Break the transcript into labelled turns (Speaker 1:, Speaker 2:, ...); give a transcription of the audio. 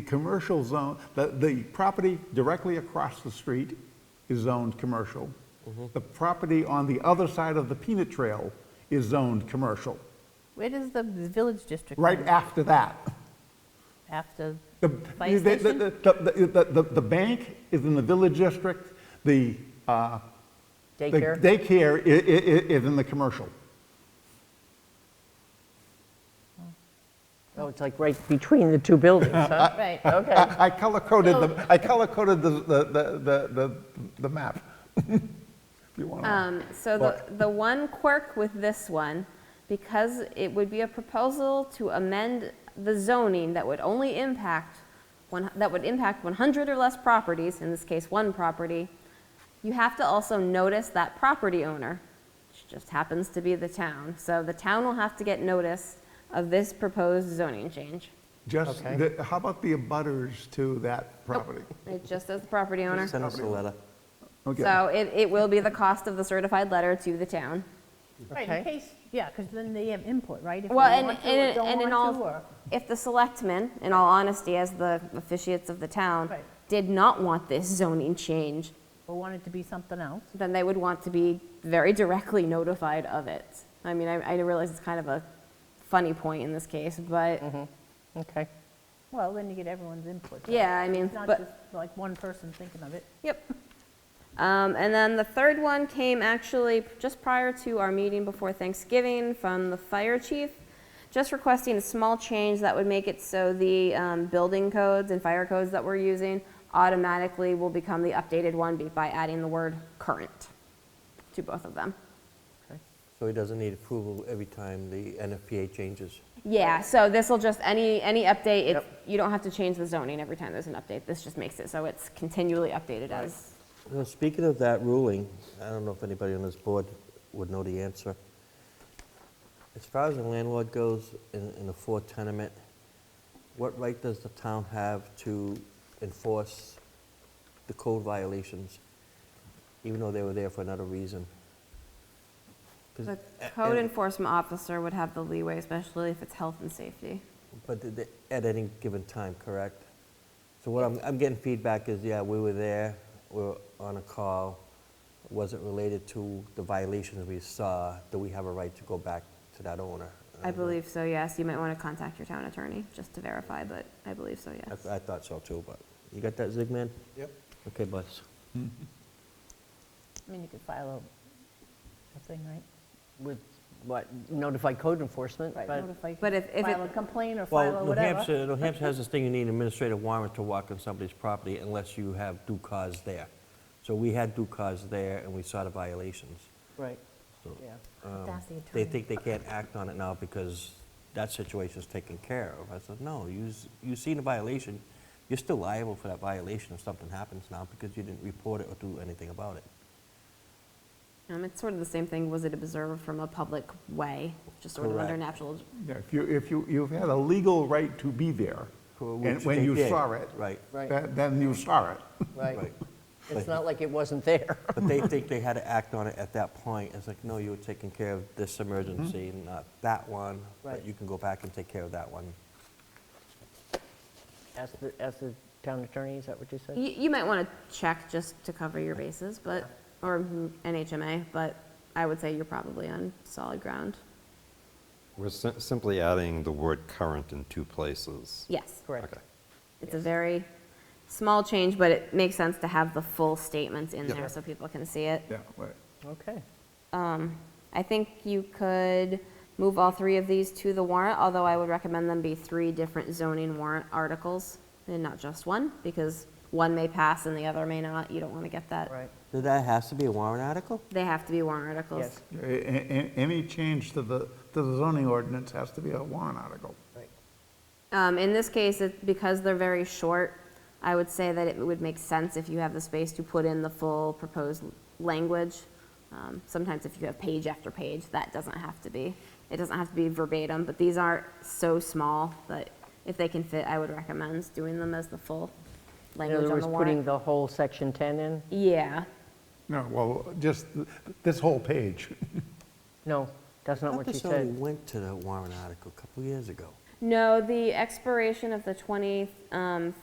Speaker 1: The commercial zone, the, the property directly across the street is zoned commercial. The property on the other side of the peanut trail is zoned commercial,
Speaker 2: Where does the village district?
Speaker 1: right
Speaker 2: come in?
Speaker 1: after that.
Speaker 2: After,
Speaker 1: The,
Speaker 2: Fire
Speaker 1: the- the-
Speaker 2: station?
Speaker 1: the- the- the- the- the bank is in the village district, the, uh, the
Speaker 3: Daycare?
Speaker 1: daycare i- i- i- is in the commercial.
Speaker 3: Oh, it's like right between the two buildings, huh?
Speaker 2: right,
Speaker 3: Okay.
Speaker 1: I I color coded the, I color coded the, the, the- the, the, the map. If you want to.
Speaker 4: Um, So the, the one quirk with this one, because it would be a proposal to amend the zoning that would only impact, one that would impact 100 or less properties, in this case, one property, you have to also notice that property owner, which just happens to be the town. So the town will have to get notice of this proposed zoning change.
Speaker 1: Just,
Speaker 3: okay.
Speaker 1: the- how about the abutters to that property?
Speaker 4: It just says the property owner.
Speaker 5: Send us a letter.
Speaker 1: Okay.
Speaker 4: So it, it will be the cost of the certified letter to the town.
Speaker 2: right,
Speaker 3: Okay.
Speaker 2: in case, yeah, because then they have input, right? If they
Speaker 4: Well, and,
Speaker 2: want to or
Speaker 4: and,
Speaker 2: don't
Speaker 4: and in
Speaker 2: want to,
Speaker 4: all,
Speaker 2: or-
Speaker 4: if the selectmen, in all honesty, as the officiates of the town,
Speaker 2: Right.
Speaker 4: did not want this zoning change,
Speaker 2: Or want it to be something else.
Speaker 4: then they would want to be very directly notified of it. I mean, I, I realize it's kind of a funny point in this case, but,
Speaker 3: Okay.
Speaker 2: Well, then you get everyone's input. right?
Speaker 4: yeah, I mean,
Speaker 2: It's not
Speaker 4: but.
Speaker 2: just like one person thinking of it.
Speaker 4: Yep. Um, and then the third one came actually just prior to our meeting before Thanksgiving from the fire chief, just requesting a small change that would make it so the um, building codes and fire codes that we're using automatically will become the updated one be- by adding the word current to both of them.
Speaker 5: So he doesn't need approval every time the NFPA changes.
Speaker 4: Yeah, so this will just, any, any update, it's,
Speaker 3: Yep.
Speaker 4: you don't have to change the zoning every time there's an update. This just makes it so it's continually updated as,
Speaker 5: Now, speaking of that ruling, I don't know if anybody on this board would know the answer. As far as the landlord goes in, in a four tenement, what right does the town have to enforce the code violations, even though they were there for another reason? 'Cause-
Speaker 4: the
Speaker 5: a-
Speaker 4: code
Speaker 5: and-
Speaker 4: enforcement officer would have the leeway, especially if it's health and safety.
Speaker 5: But th- th- at any given time, correct? So what I'm, I'm getting feedback is, yeah, we were there, we were on a call, wasn't related to the violations we saw, do we have a right to go back to that owner?
Speaker 4: I believe so, yes. You might want to contact your town attorney just to verify, but I believe so, yes.
Speaker 5: I I thought so too, but, you got that, Zigman?
Speaker 6: Yep.
Speaker 5: Okay, boss.
Speaker 2: I mean, you could file a, a thing, right?
Speaker 3: With what, notify code enforcement?
Speaker 2: Right, notify,
Speaker 4: But if- if
Speaker 2: file a
Speaker 4: it-
Speaker 2: complaint or file
Speaker 5: Well,
Speaker 2: a
Speaker 5: New
Speaker 2: whatever.
Speaker 5: Hampshire, New Hampshire has this thing, you need an administrative warrant to walk on somebody's property unless you have due cause there. So we had due cause there, and we saw the violations.
Speaker 3: Right,
Speaker 5: So-
Speaker 3: yeah.
Speaker 5: um,
Speaker 2: That's the
Speaker 5: They
Speaker 2: attorney.
Speaker 5: think they can't act on it now because that situation's taken care of. I said, no, you's- you've seen a violation, you're still liable for that violation if something happens now because you didn't report it or do anything about it.
Speaker 4: Um, it's sort of the same thing, was it observed from a public way, just sort of under
Speaker 5: Correct.
Speaker 4: natural,
Speaker 1: Yeah, If you, if you, you've had a legal right to be there,
Speaker 5: Well,
Speaker 1: and
Speaker 5: which
Speaker 1: when
Speaker 5: they
Speaker 1: you
Speaker 5: did,
Speaker 1: saw it.
Speaker 5: right.
Speaker 3: Right.
Speaker 1: that- Then you saw it.
Speaker 3: Right.
Speaker 5: Right.
Speaker 3: It's not like it wasn't there.
Speaker 5: But they think they had to act on it at that point. It's like, no, you were taking care of this emergency,
Speaker 1: Mm-hmm.
Speaker 5: not that one,
Speaker 3: Right.
Speaker 5: but you can go back and take care of that one.
Speaker 3: As the, as the town attorney, is that what you said?
Speaker 4: you, you might want to check just to cover your bases, but, or NHMA, but I would say you're probably on solid ground.
Speaker 7: We're si- simply adding the word current in two places.
Speaker 4: Yes.
Speaker 3: Correct.
Speaker 7: Okay.
Speaker 4: It's a very small change, but it makes sense to have the full statements in
Speaker 1: Yeah.
Speaker 4: there so people can see it.
Speaker 1: Yeah, right.
Speaker 3: Okay.
Speaker 4: I think you could move all three of these to the warrant, although I would recommend them be three different zoning warrant articles and not just one, because one may pass and the other may not. You don't want to get that.
Speaker 3: Right,
Speaker 5: Did that has to be a warrant article?
Speaker 4: They have to be warrant articles.
Speaker 3: yes,
Speaker 1: A- a- a- Any change to the, to the zoning ordinance has to be a warrant article.
Speaker 3: right.
Speaker 4: Um, in this case, it, because they're very short, I would say that it would make sense if you have the space to put in the full proposed language. Um, sometimes if you have page after page, that doesn't have to be, it doesn't have to be verbatim, but these are so small that if they can fit, I would recommend doing them as the full
Speaker 3: In
Speaker 4: language
Speaker 3: other
Speaker 4: on
Speaker 3: words,
Speaker 4: the
Speaker 3: putting
Speaker 4: warrant.
Speaker 3: the whole section 10 in?
Speaker 4: Yeah,
Speaker 1: No, well, just th- this whole page.
Speaker 3: No, that's not what you
Speaker 5: I thought this already
Speaker 3: said.
Speaker 5: went to the warrant article a couple years ago.
Speaker 4: No, the expiration of the 20, um,